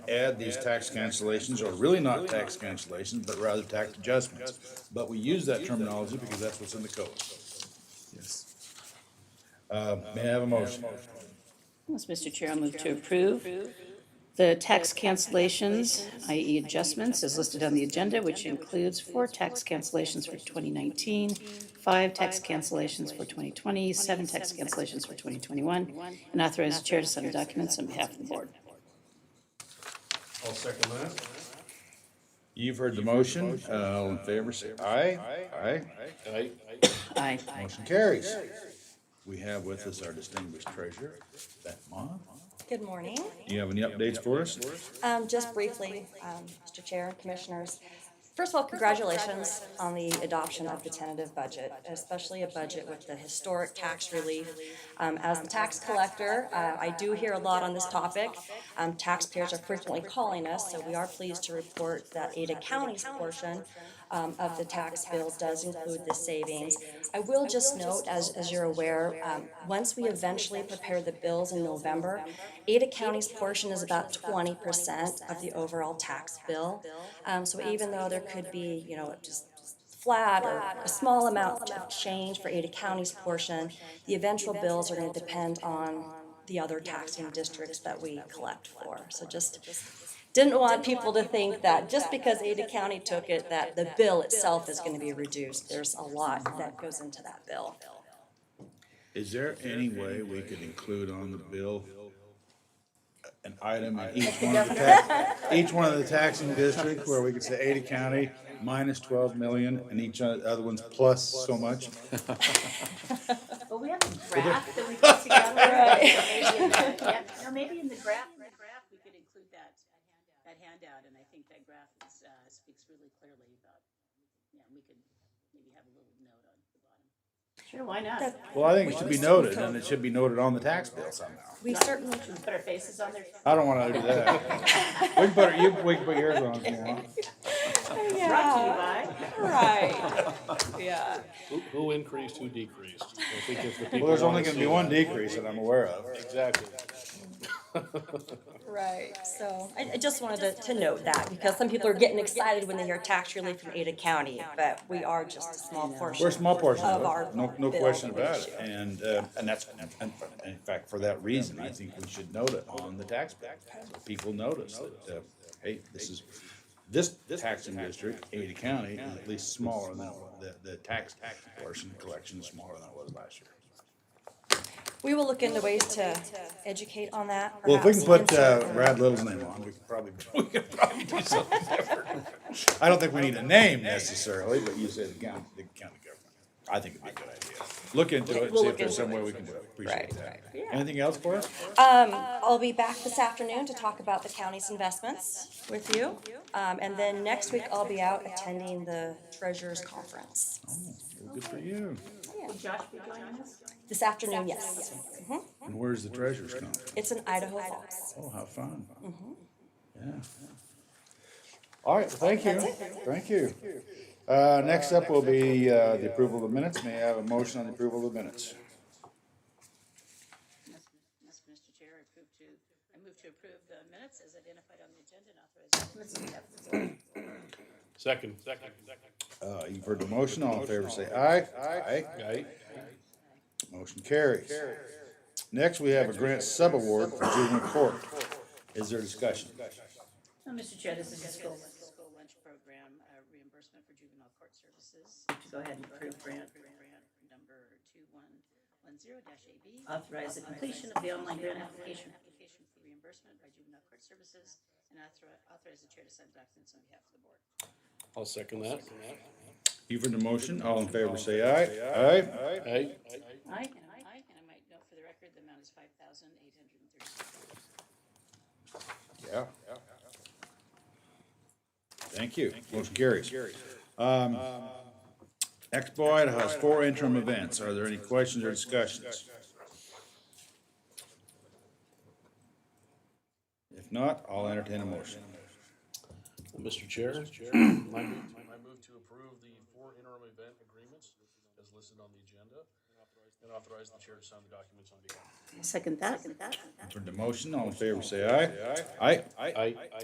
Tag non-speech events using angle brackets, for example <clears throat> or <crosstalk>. add these tax cancellations, or really not tax cancellations, but rather tax adjustments. But we use that terminology because that's what's in the code. Yes. Uh, may I have a motion? Yes, Mr. Chair, I'll move to approve the tax cancellations, i.e. adjustments, as listed on the agenda, which includes four tax cancellations for 2019, five tax cancellations for 2020, seven tax cancellations for 2021, and authorize the chair to sign the documents on behalf of the board. I'll second that. You've heard the motion, Uh, all in favor, say aye. Aye. Aye. Aye. Motion carries. We have with us our distinguished treasurer, Beth Ma. Good morning. Do you have any updates for us? Um, Just briefly, um, Mr. Chair, Commissioners, first of all, congratulations on the adoption of the tentative budget, especially a budget with the historic tax relief. Um, As the tax collector, uh, I do hear a lot on this topic. Um, Taxpayers are frequently calling us, so we are pleased to report that Ada County's portion um, of the tax bill does include the savings. I will just note, as, as you're aware, um, once we eventually prepare the bills in November, Ada County's portion is about twenty percent of the overall tax bill. Um, so even though there could be, you know, just flat or a small amount of change for Ada County's portion, the eventual bills are gonna depend on the other taxing districts that we collect for. So just, didn't want people to think that just because Ada County took it, that the bill itself is gonna be reduced. There's a lot that goes into that bill. Is there any way we could include on the bill an item in each one of the tax, each one of the taxing districts where we could say Ada County minus twelve million and each o- other one's plus so much? Well, we have a graph that we put together. <laughs> Yeah, No, maybe in the graph, in the graph, we could include that, that handout, and I think that graph is, uh, speaks really clearly about, yeah, we could maybe have a little note on the bottom. Sure, why not? Well, I think it should be noted and it should be noted on the tax bill somehow. We certainly Put our faces on there. I don't wanna do that. We can put, you, we can put yours on if you want. Brought to you by. Right, <laughs> yeah. Who, who increased, who decreased? I think if the Well, people there's only wanna gonna see be one that. decrease that I'm aware of. Exactly. Right, so I, I just wanted to, to note that, because some people are getting excited when they hear tax relief from Ada County, but we are just a small portion. We're a small portion of Of our it, no, no bill question about it, issue. and, uh, and that's, and- and in fact, for that reason, I think we should note it on the tax bill. so People notice that, uh, hey, this is, this taxing district, Ada County, is at least smaller than, what the, the tax portion collection is smaller than it was last year. We will look into ways to educate on that, Well, if we can perhaps put, uh, insert- Brad Little's name on, we could probably, <laughs> we could probably do something different. I don't think we need a name necessarily, but you said the county, the county government. I think it'd be a good idea. Look into it, and We'll see if look there's into some it. way we can do it. Appreciate Right, that. right. Anything else for us? Um, I'll be back this afternoon to talk about the county's investments with you. Um, and then next week I'll be out attending the treasurer's conference. Good for you. Will Josh be joining us? This afternoon, yes. Mhm. And where's the treasures come? It's in Idaho Falls. Oh, how fun. Mm-hmm. Yeah. All right, well, thank you. Thank you. Uh, next up will be, uh, the approval of the minutes. May I have a motion on the approval of the minutes? Yes, Yes, Mr. Chair, I approve to, I move to approve the minutes as identified on the agenda and authorize. Second, second, second. Uh, you've heard the motion, all in favor say aye. Aye. Aye. Motion carries. Next, we have a grant subaward for juvenile court. Is there discussion? Well, Mr. Oh, Chair, this is a school, school lunch program uh, reimbursement for juvenile court services. To go ahead and approve grant. Grant number two one one zero dash AB. Authorize the completion of the online grant application. Application for reimbursement by juvenile court services and author- authorize the chair to send documents on behalf of the board. I'll second that. You've heard the motion, all in favor say aye. Aye. Aye. Aye. And aye, and I might note for the record, the amount is five thousand eight hundred and thirty-six dollars. Yeah. Thank you. Motion carries. Um, Expo Idaho has four interim events. Are there any questions or discussions? If not, I'll entertain a motion. Mr. Chair, <clears throat> I move I move to approve the four interim event agreements as listed on the agenda and authorize the chair to sign the documents on behalf. Second that. Second that. Heard the motion, all in favor say aye. Aye. Aye.